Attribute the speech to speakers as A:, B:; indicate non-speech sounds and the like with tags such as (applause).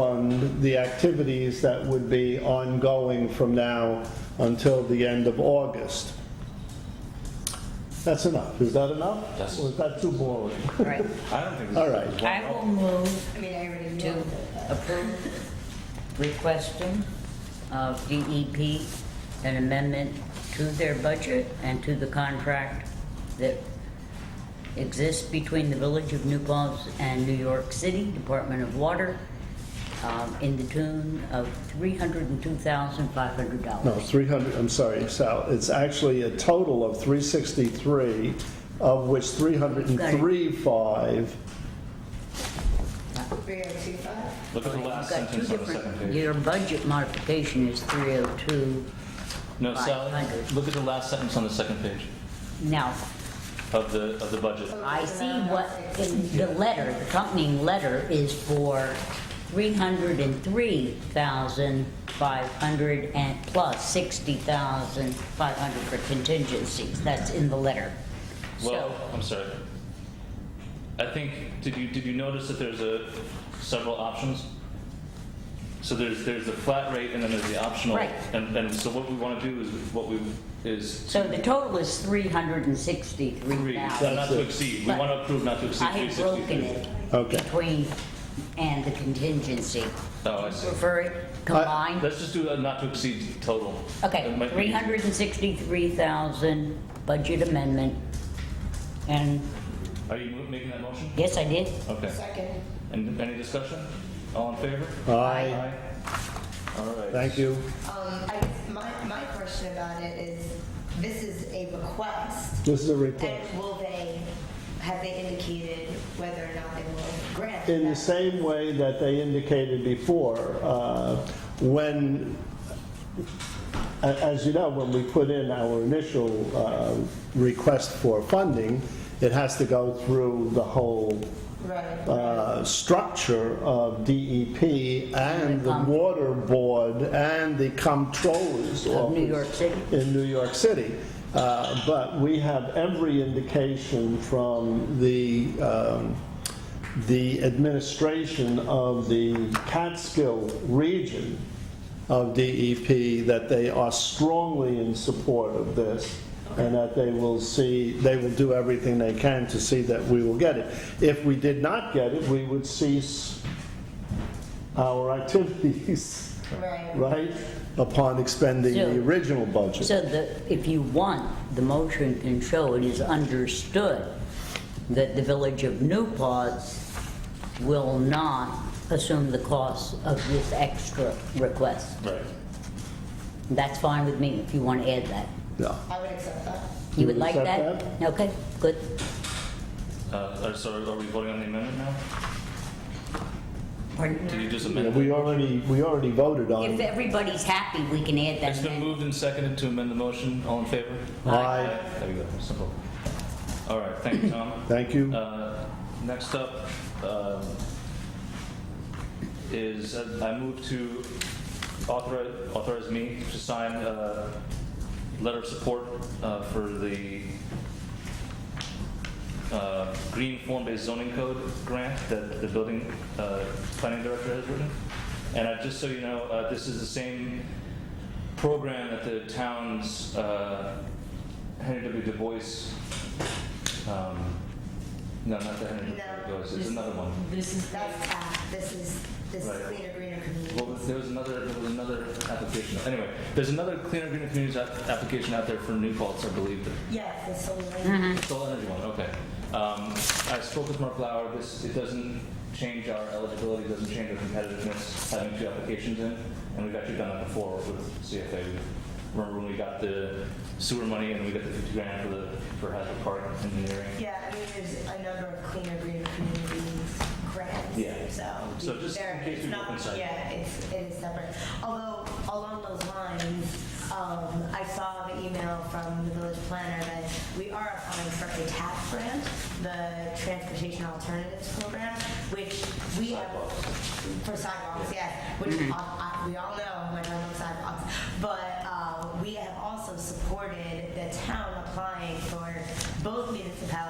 A: fund the activities that would be ongoing from now until the end of August. That's enough. Is that enough?
B: Yes.
A: Or is that too boring?
C: Right.
B: I don't think.
A: All right.
C: I will move
D: I mean, I already
C: to
D: knew.
C: approve requesting of DEP an amendment to their budget and to the contract that exists between the Village of New Paltz and New York City Department of Water um, in the tune of $302,500.
A: No, 300, I'm sorry, Sal, it's actually a total of 363, of which 303.5
D: Three oh two five.
B: Look at the last
C: You've got two
B: sentence on the
C: different-
B: second page.
C: Your budget modification is 302.
B: No, Sally,
C: 500.
B: look at the last sentence on the second page
C: Now,
B: of the, of the budget.
C: I see what, in the letter, the accompanying letter is for 303,500 and plus 60,500 for contingencies. That's in the letter.
B: Well,
C: So,
B: I'm sorry. I think, did you, did you notice that there's a, several options? So there's, there's the flat rate and then there's the optional.
C: Right.
B: And, and so what we want to do is, what we, is
C: so the total is
B: three, not
C: 363,000.
B: to exceed. We want to approve not to exceed
C: I have
B: 363.
C: broken it
A: Okay.
C: between, and the contingency.
B: Oh, I see.
C: Refer it combined?
B: Let's just do a not to exceed total.
C: Okay,
B: That might be-
C: 363,000 budget amendment. And,
B: Are you mo- making that motion?
C: yes, I did.
B: Okay.
D: Second.
B: And any discussion? All in favor?
A: Aye.
B: All right.
A: Thank you.
D: Um, I, my, my question about it is, this is a request,
A: This is a report.
D: and will they, have they indicated whether or not they will grant?
A: In the
D: that?
A: same way that they indicated before, uh, when, a- as you know, when we put in our initial uh, request for funding, it has to go through the whole
D: Right.
A: uh, structure of DEP and the
C: Com-
A: Water Board and the Comptroller's
C: Of New
A: Office
C: York City.
A: in New York City. Uh, But we have every indication from the, um, the administration of the Catskill region of DEP that they are strongly in support of this and that they will see, they will do everything they can to see that we will get it. If we did not get it, we would cease our activities, (laughs)
D: Right.
A: right, upon expending the
C: So-
A: original budget.
C: So the, if you want, the motion can show it is understood that the Village of New Paltz will not assume the cost of this extra request.
B: Right.
C: That's fine with me if you want to add that.
A: Yeah.
D: I would accept that.
C: You
A: You
C: would like
A: accept
C: that? Okay, good.
B: Uh, uh, so are we voting on the amendment now?
C: Pardon?
B: Did you just
A: Yeah,
B: amend
A: We
B: it?
A: already, we already voted on
C: If
A: it.
C: everybody's happy, we can add that.
B: It's been moved and seconded to amend the motion. All in favor?
A: Aye.
B: There you go. Simple. All right. Thank you,
A: (coughs)
B: Tom.
A: Thank you.
B: Uh, Next up um, is, uh, I move to authorize, authorize me to sign a letter of support uh, for the uh, Green Form-Based Zoning Code grant that the building uh, planning director has written. And uh, just so you know, uh, this is the same program that the town's uh, Henry W. Du Bois, um, no, not the Henry W. Du Bois, it's another one.
C: This is
D: That's, uh, this is, this is
B: Right.
D: cleaner, greener community.
B: Well, there was another, there was another application. Anyway, there's another Cleaner Greener Communities app- application out there for New Paltz, I believe, that
D: Yes, the solar.
C: Mm-hmm.
B: Solar energy one, okay. Um, I spoke with Mark Lauer, this, it doesn't change our eligibility, it doesn't change our competitiveness, having two applications in, and we've actually done that before with CFA. Remember when we got the sewer money and we got the fifty grand for the, for Hazard Park engineering?
D: Yeah, I mean, there's a number of cleaner, greener communities
B: Yeah.
D: grants, so.
B: So just in
D: there-
B: case
D: it's
B: we
D: not-
B: look inside.
D: Yeah, it's, it is separate. Although, along those lines, um, I saw the email from the village planner that we are applying for a TAP grant, the Transportation Alternatives Program, which we have. For sidewalks, yeah, which I- I- we all know when I look sidewalks. But uh, we have also supported the town applying for both municipalities